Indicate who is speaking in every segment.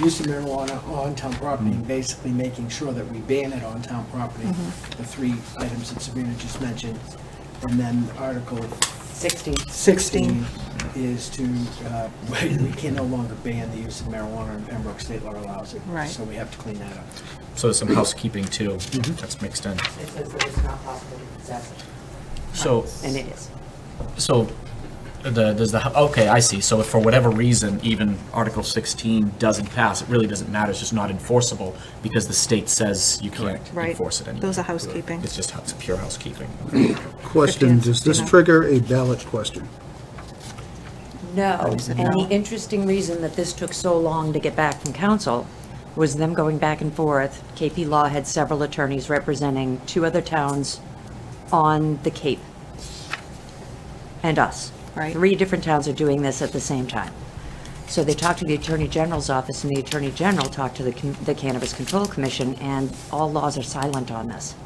Speaker 1: use of marijuana on town property, and basically making sure that we ban it on town property, the three items that Sabrina just mentioned. And then Article
Speaker 2: 16.
Speaker 1: 16 is to, uh, we can no longer ban the use of marijuana in Pembroke, state law allows it.
Speaker 3: Right.
Speaker 1: So we have to clean that up.
Speaker 4: So some housekeeping too, that's mixed in.
Speaker 2: It says that it's not possible to possess it.
Speaker 4: So,
Speaker 2: And it is.
Speaker 4: so the, does the, okay, I see. So if for whatever reason, even Article 16 doesn't pass, it really doesn't matter, it's just not enforceable because the state says you can't
Speaker 3: Right.
Speaker 4: enforce it anymore.
Speaker 3: Those are housekeeping.
Speaker 4: It's just, it's pure housekeeping.
Speaker 5: Question, does this
Speaker 3: Yeah.
Speaker 5: trigger a ballot question?
Speaker 2: No,
Speaker 3: said
Speaker 2: and
Speaker 3: no.
Speaker 2: the interesting reason that this took so long to get back from council was them going back and forth. KP Law had several attorneys representing two other towns on the Cape and us.
Speaker 3: Right.
Speaker 2: Three different towns are doing this at the same time. So they talked to the Attorney General's office, and the Attorney General talked to the Com- the Cannabis Control Commission, and all laws are silent on this.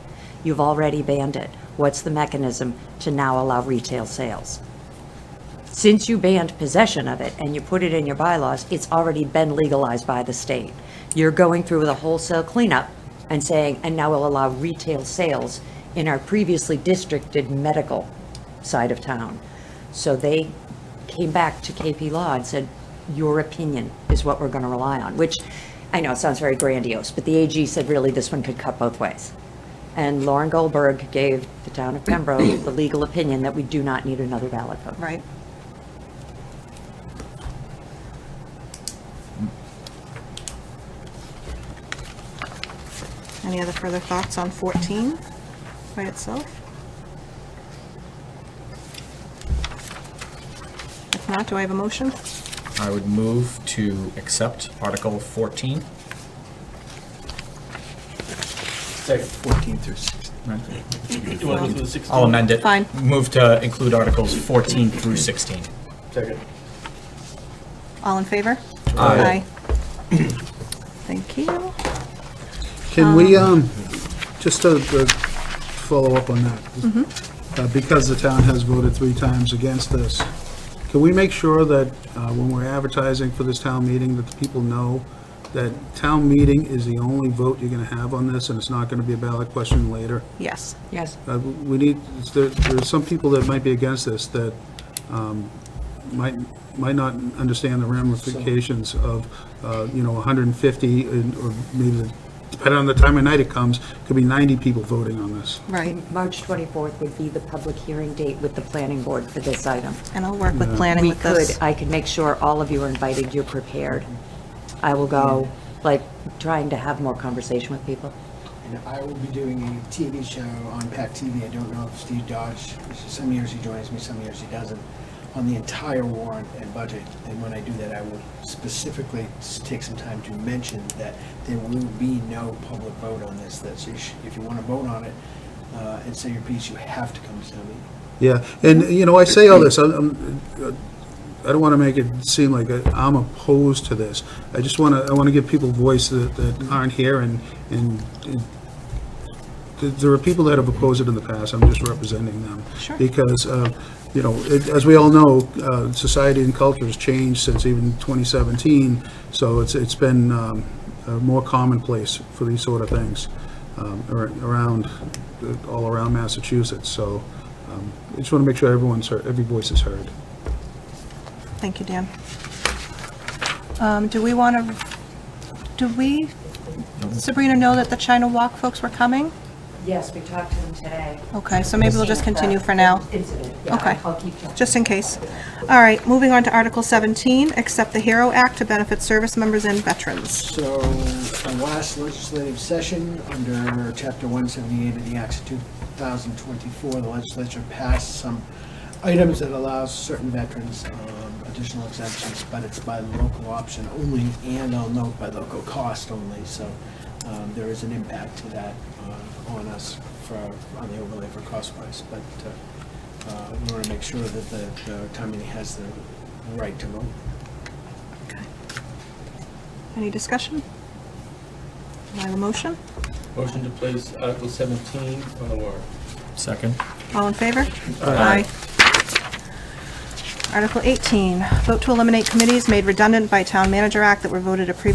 Speaker 2: You've already banned it. What's the mechanism to now allow retail sales? since you banned possession of it and you put it in your bylaws, it's already been legalized by the state. You're going through with a wholesale cleanup and saying, and now we'll allow retail sales in our previously districted medical side of town. So they came back to KP Law and said, your opinion is what we're going to rely on, which I know it sounds very grandiose, but the AG said really this one could cut both ways. And Lauren Goldberg gave the town of Pembroke the legal opinion that we do not need another ballot vote.
Speaker 3: Right. Any other further thoughts on 14 by itself? If not, do I have a motion?
Speaker 4: I would move to accept Article 14.
Speaker 1: Second. 14 through 16.
Speaker 4: right?
Speaker 6: You want to go through the 16?
Speaker 4: I'll amend it.
Speaker 3: Fine.
Speaker 4: Move to include Articles 14 through 16.
Speaker 6: Second.
Speaker 3: All in favor?
Speaker 4: Aye.
Speaker 3: Thank you.
Speaker 5: Can we, um, just to to follow up on that? uh, Because the town has voted three times against this, can we make sure that uh, when we're advertising for this town meeting, that the people know that town meeting is the only vote you're going to have on this, and it's not going to be a ballot question later?
Speaker 3: Yes.
Speaker 2: Yes.
Speaker 5: Uh, We need, there there are some people that might be against this that um, might, might not understand the ramifications of, uh, you know, 150, and- or maybe, depending on the time of night it comes, could be 90 people voting on this.
Speaker 3: Right.
Speaker 2: March 24th would be the public hearing date with the planning board for this item.
Speaker 3: And I'll work with planning
Speaker 2: We
Speaker 3: with this.
Speaker 2: could, I could make sure all of you are invited, you're prepared. I will go, like, trying to have more conversation with people.
Speaker 1: And I will be doing a TV show on PAC TV. I don't know if Steve Dodge, some years he joins me, some years he doesn't, on the entire warrant and budget. And when I do that, I will specifically s- take some time to mention that there will be no public vote on this. That's, you should- if you want to vote on it uh, and say your piece, you have to come to the meeting.
Speaker 5: Yeah, and, you know, I say all this, I'm- I'm, I don't want to make it seem like I'm opposed to this. I just want to, I want to give people voice that that aren't here, and, and th- there are people that have opposed it in the past, I'm just representing them.
Speaker 3: Sure.
Speaker 5: Because, uh, you know, it- as we all know, uh, society and culture has changed since even 2017, so it's, it's been um, uh, more commonplace for these sort of things um, ar- around, uh, all around Massachusetts, so um, I just want to make sure everyone's, heard- every voice is heard.
Speaker 3: Thank you, Dan. Um, Do we want to, do we, Sabrina, know that the China Walk folks were coming?
Speaker 2: Yes, we talked to them today.
Speaker 3: Okay, so maybe we'll just continue for now,
Speaker 2: Incident,
Speaker 3: Yeah, Okay.
Speaker 2: I'll
Speaker 3: I'll
Speaker 2: keep checking.
Speaker 3: just in case. All right, moving on to Article 17, accept the HERO Act to benefit service members and veterans.
Speaker 1: So, our last legislative session, under Chapter 178 of the Acts of 2024, the legislature passed some items that allows certain veterans um, additional exemptions, but it's by local option only, and I'll note by local cost only, so um, there is an impact to that uh, on us for, on the overlay for cost-wise, but uh, uh, we want to make sure that the- the town meeting has the right to vote.
Speaker 3: Any discussion? Do I have a motion?
Speaker 6: Motion to place Article 17 on the warrant.
Speaker 4: Second.
Speaker 3: All in favor? Aye. Article 18, vote to eliminate committees made redundant by Town Manager Act that were voted a previous